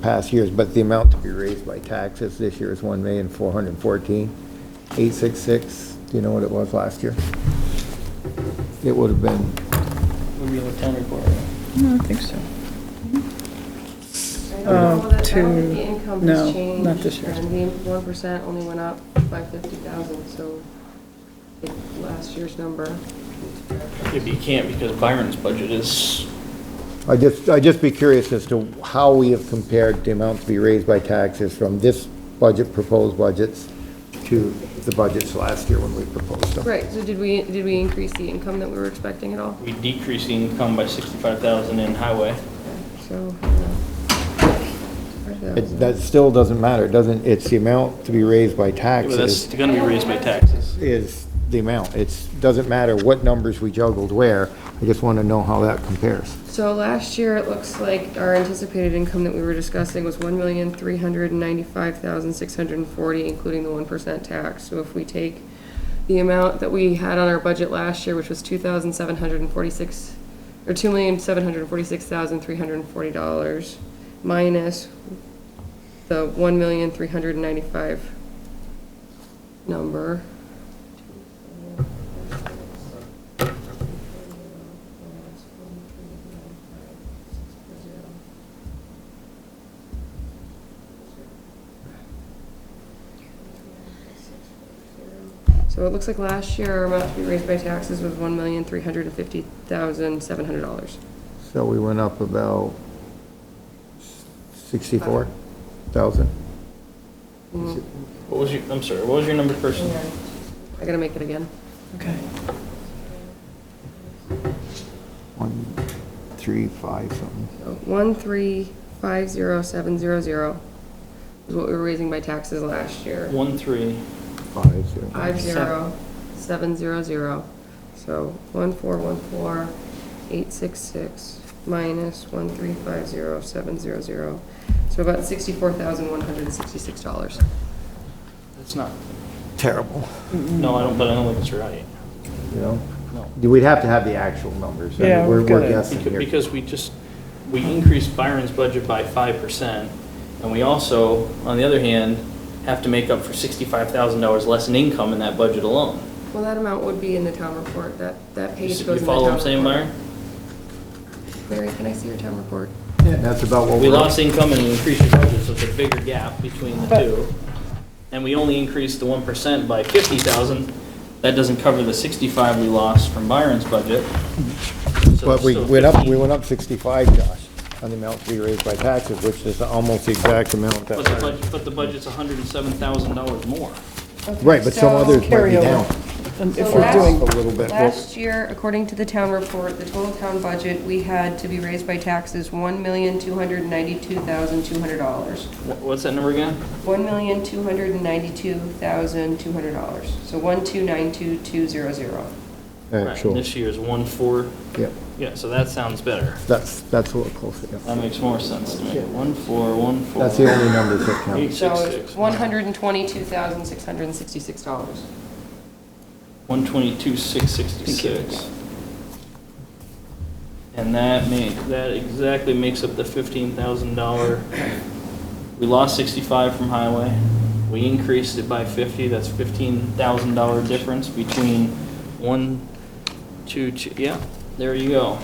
past years, but the amount to be raised by taxes this year is one million, four hundred and fourteen, eight six six. Do you know what it was last year? It would have been, Reveal the town report. No, I think so. I don't know that, I don't think to- the income Um, no, has changed. not this year. And the one percent only went up by fifty thousand, so it- last year's number. If you can't, because Byron's budget is, I just, I'd just be curious as to how we have compared the amount to be raised by taxes from this budget, proposed budgets, to the budgets last year when we proposed them. Right, so did we, did we increase the income that we were expecting at all? we decrease the income by sixty-five thousand in highway. So. uh, It, that still doesn't matter, It doesn't, it's the amount to be raised by Well, That's taxes gonna be raised by taxes. is the amount. It's, doesn't matter what numbers we juggled where, I just want to know how that compares. So last year, it looks like our anticipated income that we were discussing was one million, three hundred and ninety-five thousand, six hundred and forty, including the one percent tax. So if we take the amount that we had on our budget last year, which was two thousand, seven hundred and forty-six, or two million, seven hundred and forty-six thousand, three hundred and forty dollars, minus the one million, three hundred and ninety-five number. So it looks like last year our amount to be raised by taxes was one million, three hundred and fifty thousand, seven hundred dollars. So we went up about sixty-four thousand? Mm-hmm. What was your, I'm sorry, what was your number first? I gotta make it again. Okay. One, three, five, something. So one, three, five, zero, seven, zero, zero is what we were raising by taxes last year. One, three, Five, zero. Five, zero, seven, zero, zero. So one, four, one, four, eight, six, six, minus one, three, five, zero, seven, zero, zero. So about sixty-four thousand, one hundred and sixty-six dollars. that's not, Terrible, no, I don't, but I don't think it's right. you know? No. We'd have to have the actual numbers. I mean, Yeah, We're we've we're gotta- guessing Becau- here. Because we just, we increased Byron's budget by five percent, and we also, on the other hand, have to make up for sixty-five thousand dollars less in income in that budget alone. Well, that amount would be in the town report, that, that You page s- goes you in the town report. follow what I'm saying, Byron? Mary, can I see your town report? That's about what We we're. lost income and we increased your budget, so it's a bigger gap between the two. And we only increased the one percent by fifty thousand. That doesn't cover the sixty-five we lost from Byron's budget. So But it's we still went up, 15. we went up sixty-five, Josh, on the amount to be raised by taxes, which is almost the exact amount But the that. budget, but the budget's hundred and seven thousand dollars more. Right, but some So- others might be Carryover. down. And if So we're last- A doing, little bit. Last year, according to the town report, the total town budget, we had to be raised by taxes one million, two hundred and ninety-two thousand, two hundred dollars. Wh- What's that number again? One million, two hundred and ninety-two thousand, two hundred dollars. So one, two, nine, two, two, zero, zero. Uh, Right, Actual, This year's one four, yep, yeah, so that sounds better. that's, that's what we're close to. That yeah. makes more sense to me. Yeah. One four, one four. That's the only numbers that count. Eight So six it's six. one hundred and twenty-two thousand, six hundred and sixty-six dollars. One twenty-two, six sixty-six. And that make, that exactly makes up the fifteen thousand dollar. We lost sixty-five from highway. We increased it by fifty, that's fifteen thousand dollar difference between one, two, two, yeah, there you go.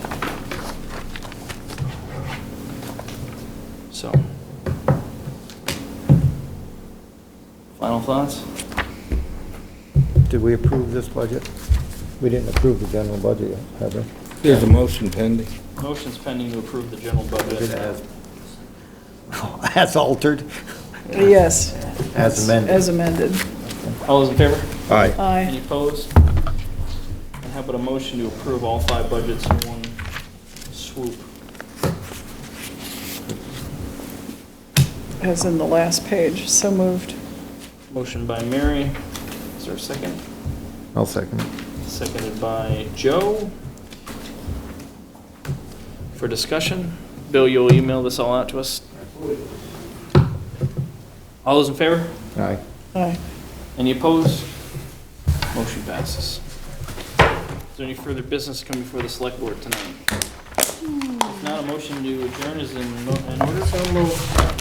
So. Final thoughts? Did we approve this budget? We didn't approve the general budget yet, have we? There's a motion pending. Motion's pending to approve the general budget. As altered, yes, as amended. as amended. All those in favor? Aye. Any Aye. opposed? And how about a motion to approve all five budgets in one swoop? As in the last page, so moved. Motion by Mary, is there a second? I'll second. it. Seconded by Joe. For discussion, Bill, you'll email this all out to us? All those in favor? Aye. Aye. Any opposed? Motion passes. Is there any further business coming before the select board tonight? If not, a motion to adjourn is in, mo- in order. So moved.